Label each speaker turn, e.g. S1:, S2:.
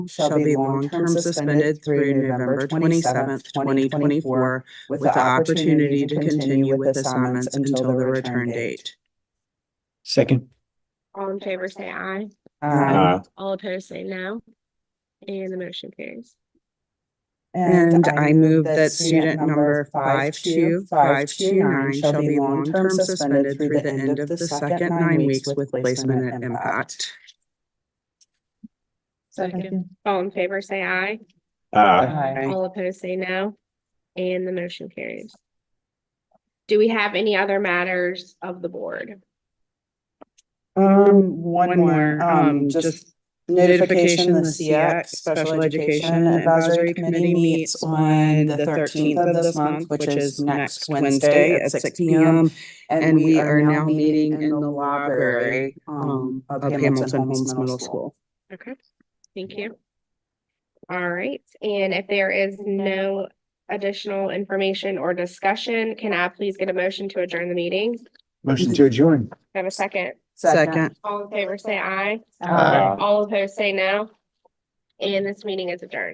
S1: shall be long-term suspended through November twenty-seventh, twenty twenty-four, with the opportunity to continue with assignments until the return date.
S2: Second.
S3: All in favor, say aye.
S1: Aye.
S3: All opposed, say no. And the motion carries.
S1: And I move that student number five-two-five-two-nine shall be long-term suspended through the end of the second nine weeks with placement at impact.
S3: Second. All in favor, say aye. uh,
S2: Aye.
S3: All opposed, say no. And the motion carries. Do we have any other matters of the board?
S1: Um, one
S4: One
S1: more, um, just notification, the CX Special Education Advisory Committee meets on the thirteenth of this month, which is next Wednesday at six P M. And we are now meeting in the library, um, of Hamilton Holmes Middle School.
S3: Okay, thank you. All right, and if there is no additional information or discussion, can I please get a motion to adjourn the meeting?
S2: Motion to adjourn.
S3: I Have a second.
S1: Second.
S3: All in favor, say aye.
S2: Aye.
S3: uh, All opposed, say no. And this meeting is adjourned.